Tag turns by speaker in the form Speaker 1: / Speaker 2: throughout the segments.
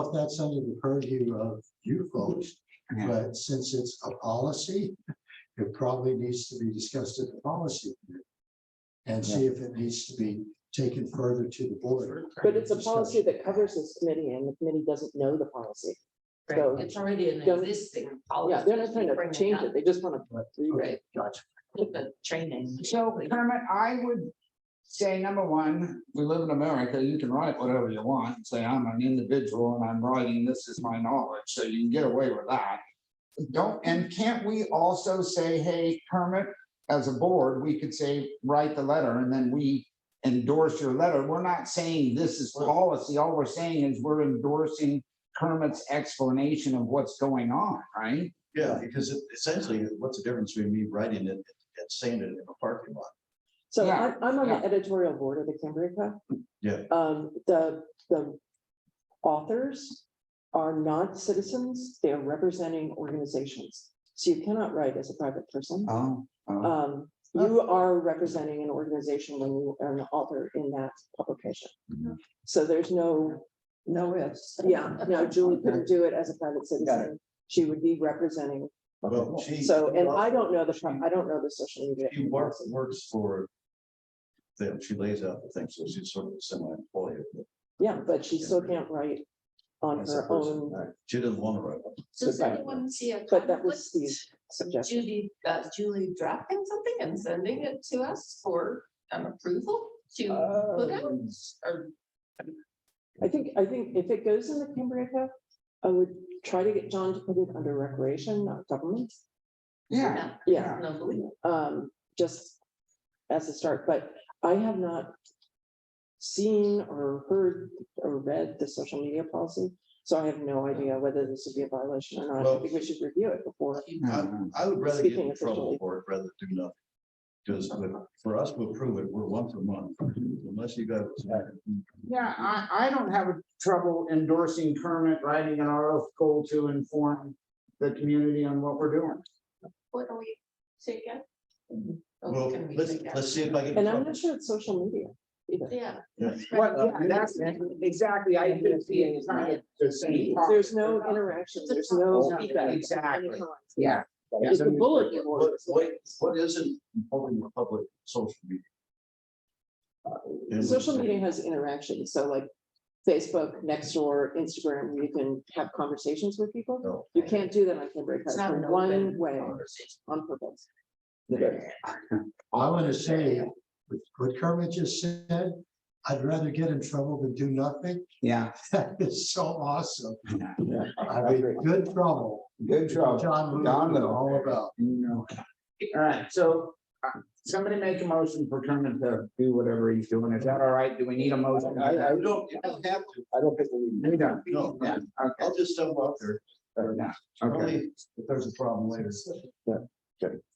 Speaker 1: if that's under the purview of you folks, but since it's a policy, it probably needs to be discussed at the policy. committee And see if it needs to be taken further to the board.
Speaker 2: But it's a policy that covers this committee and the committee doesn't know the policy. So-
Speaker 3: Right, it's already an
Speaker 2: Don't-
Speaker 3: existing
Speaker 2: Yeah,
Speaker 3: policy.
Speaker 2: they're not trying
Speaker 3: Bring
Speaker 2: to
Speaker 3: it
Speaker 2: change
Speaker 3: up
Speaker 2: it. They just want
Speaker 1: Right.
Speaker 2: to.
Speaker 3: Right.
Speaker 1: Gotcha.
Speaker 3: with The training.
Speaker 4: So Kermit, I would say number one,
Speaker 5: we live in America, you can write whatever you want, and say, I'm an individual and I'm writing, this is my knowledge, so you can get away with that. Don't, and can't we also say, hey, Kermit, as a board, we could say, write the letter and then we endorse your letter. We're not saying this is policy. All we're saying is we're endorsing Kermit's explanation of what's going on, right?
Speaker 6: Yeah, because it- essentially, what's the difference between me writing it and saying it in a parking lot?
Speaker 2: So
Speaker 5: Yeah,
Speaker 2: I'm, I'm on
Speaker 5: yeah.
Speaker 2: the editorial board of the Cambria Club.
Speaker 6: Yeah.
Speaker 2: Um, the, the authors are not citizens. They are representing organizations. So you cannot write as a private person.
Speaker 5: Oh.
Speaker 2: Um, you are representing an organization when you are an author in that publication.
Speaker 6: Mhm.
Speaker 2: So there's no,
Speaker 7: No ifs.
Speaker 2: yeah, no, Julie couldn't do it as a private citizen. She would be representing.
Speaker 6: Well, she.
Speaker 2: So, and I don't know the, pro- I don't know the social media.
Speaker 6: She works, works for them. She lays out the things, so she's sort of a semi-employee.
Speaker 2: Yeah, but she still can't write on her own
Speaker 6: uh, She doesn't want to write. one.
Speaker 3: Does
Speaker 2: Goodbye.
Speaker 3: anyone see a
Speaker 2: But that was
Speaker 3: conflict?
Speaker 2: suggestion.
Speaker 3: Judy, uh, Julie drafting something and sending it to us for um, approval
Speaker 2: Uh,
Speaker 3: to put out? Or
Speaker 2: I think, I think if it goes in the Cambria Cup, I would try to get John to put it under recreation, not government.
Speaker 5: Yeah,
Speaker 2: Yeah,
Speaker 3: no, believe it.
Speaker 2: um, just as a start, but I have not seen or heard or read the social media policy, so I have no idea whether this would be a violation or not. I
Speaker 6: Well-
Speaker 2: think we should review it before.
Speaker 6: I- I would rather get
Speaker 2: Speaking
Speaker 6: in trouble
Speaker 2: officially.
Speaker 6: for it rather than do nothing. Because for us to approve it, we're once a month, unless you got.
Speaker 5: Yeah, I, I don't have trouble endorsing Kermit writing an article to inform the community on what we're doing.
Speaker 3: what are we taking?
Speaker 6: Well, let's, let's see if I get. in
Speaker 2: And I'm
Speaker 6: trouble.
Speaker 2: not sure it's social media either.
Speaker 3: Yeah.
Speaker 6: Yeah.
Speaker 3: Right.
Speaker 5: Well, yeah, that's exactly, I didn't see it, it's not the same. topic.
Speaker 2: There's no interaction, there's no feedback.
Speaker 5: Exactly, yeah.
Speaker 2: It's a bulletin
Speaker 6: What,
Speaker 2: board.
Speaker 6: what, what isn't holding the public social media? And-
Speaker 2: Social media has interaction, so like Facebook, Nextdoor, Instagram, you can have conversations with people.
Speaker 6: No.
Speaker 2: You can't do that on Cambria,
Speaker 3: It's
Speaker 2: it's
Speaker 3: not an
Speaker 2: one
Speaker 3: open
Speaker 2: way
Speaker 3: conversation.
Speaker 2: on purpose.
Speaker 1: I want to say, with what Kermit just said, I'd rather get in trouble than do nothing.
Speaker 5: Yeah.
Speaker 1: That is so awesome. I mean, good trouble.
Speaker 5: Good
Speaker 1: John
Speaker 5: John
Speaker 1: Wooden,
Speaker 5: Wooden.
Speaker 1: all about.
Speaker 5: All right, so uh, somebody make a motion for Kermit to do whatever he's doing. Is that all right? Do we need a motion?
Speaker 6: I, I don't, you don't have to,
Speaker 5: I don't think we. We don't.
Speaker 6: No.
Speaker 5: Yeah, okay.
Speaker 6: I'll just jump out there,
Speaker 5: Yeah, Okay.
Speaker 6: probably if there's a problem later.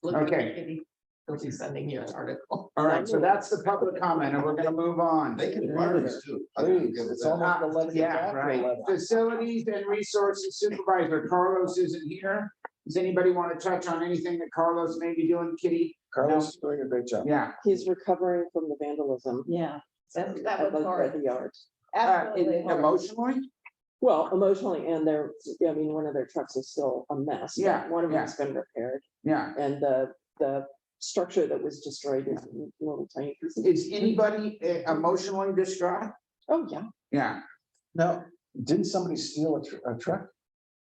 Speaker 3: Look at
Speaker 5: Okay.
Speaker 3: Judy, They'll be sending you an article.
Speaker 5: All right, so that's the public comment and we're gonna move on.
Speaker 6: They can fire us too. I think it's all-
Speaker 5: Ah, Yeah, right. Facilities and Resources Supervisor Carlos isn't here. Does anybody want to touch on anything that Carlos may be doing, Kitty? Carlos
Speaker 7: is doing a great job.
Speaker 5: Yeah.
Speaker 2: He's recovering from the vandalism.
Speaker 7: Yeah.
Speaker 3: That that
Speaker 2: at
Speaker 3: was
Speaker 2: the- at
Speaker 3: hard.
Speaker 2: the yard.
Speaker 5: Uh, in-
Speaker 7: Absolutely.
Speaker 5: Emotionally?
Speaker 2: Well, emotionally, and they're, I mean, one of their trucks is still a mess. but
Speaker 5: Yeah,
Speaker 2: One of
Speaker 5: yeah.
Speaker 2: them's been repaired,
Speaker 5: Yeah.
Speaker 2: and the, the structure that was destroyed is little tiny pieces.
Speaker 5: Is anybody uh, emotionally distraught?
Speaker 2: Oh, yeah.
Speaker 5: Yeah.
Speaker 7: Now, didn't somebody steal a, tr- a truck?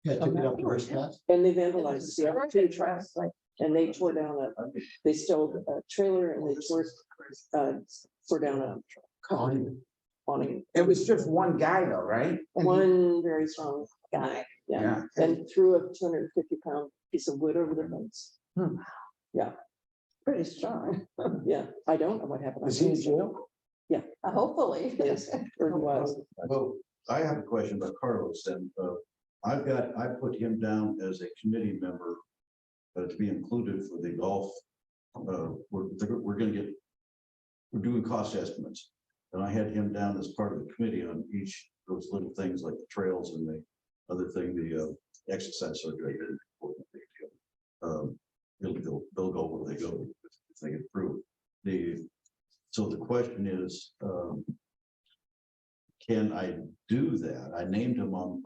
Speaker 1: Yeah, took it up to her staff.
Speaker 2: And they vandalized the other two trucks, and they tore down a, they stole a trailer and they tore, uh, tore down a common awning.
Speaker 5: It was just one guy though, right?
Speaker 2: One very strong guy, yeah,
Speaker 5: Yeah.
Speaker 2: and threw a two hundred and fifty pound piece of wood over their fence.
Speaker 7: Hmm.
Speaker 2: Yeah. Pretty strong. Yeah, I don't know what happened.
Speaker 7: Is he in jail?
Speaker 3: Hopefully.
Speaker 2: Yes, or he was.
Speaker 6: Well, I have a question about Carlos and, uh, I've got, I put him down as a committee member. Uh, to be included for the golf, uh, we're, we're gonna get. We're doing cost estimates, and I had him down as part of the committee on each of those little things like the trails and the other thing, the, uh, exercise surgery. Um, it'll go, they'll go where they go, if they approve. The, so the question is, um, can I do that? I named him on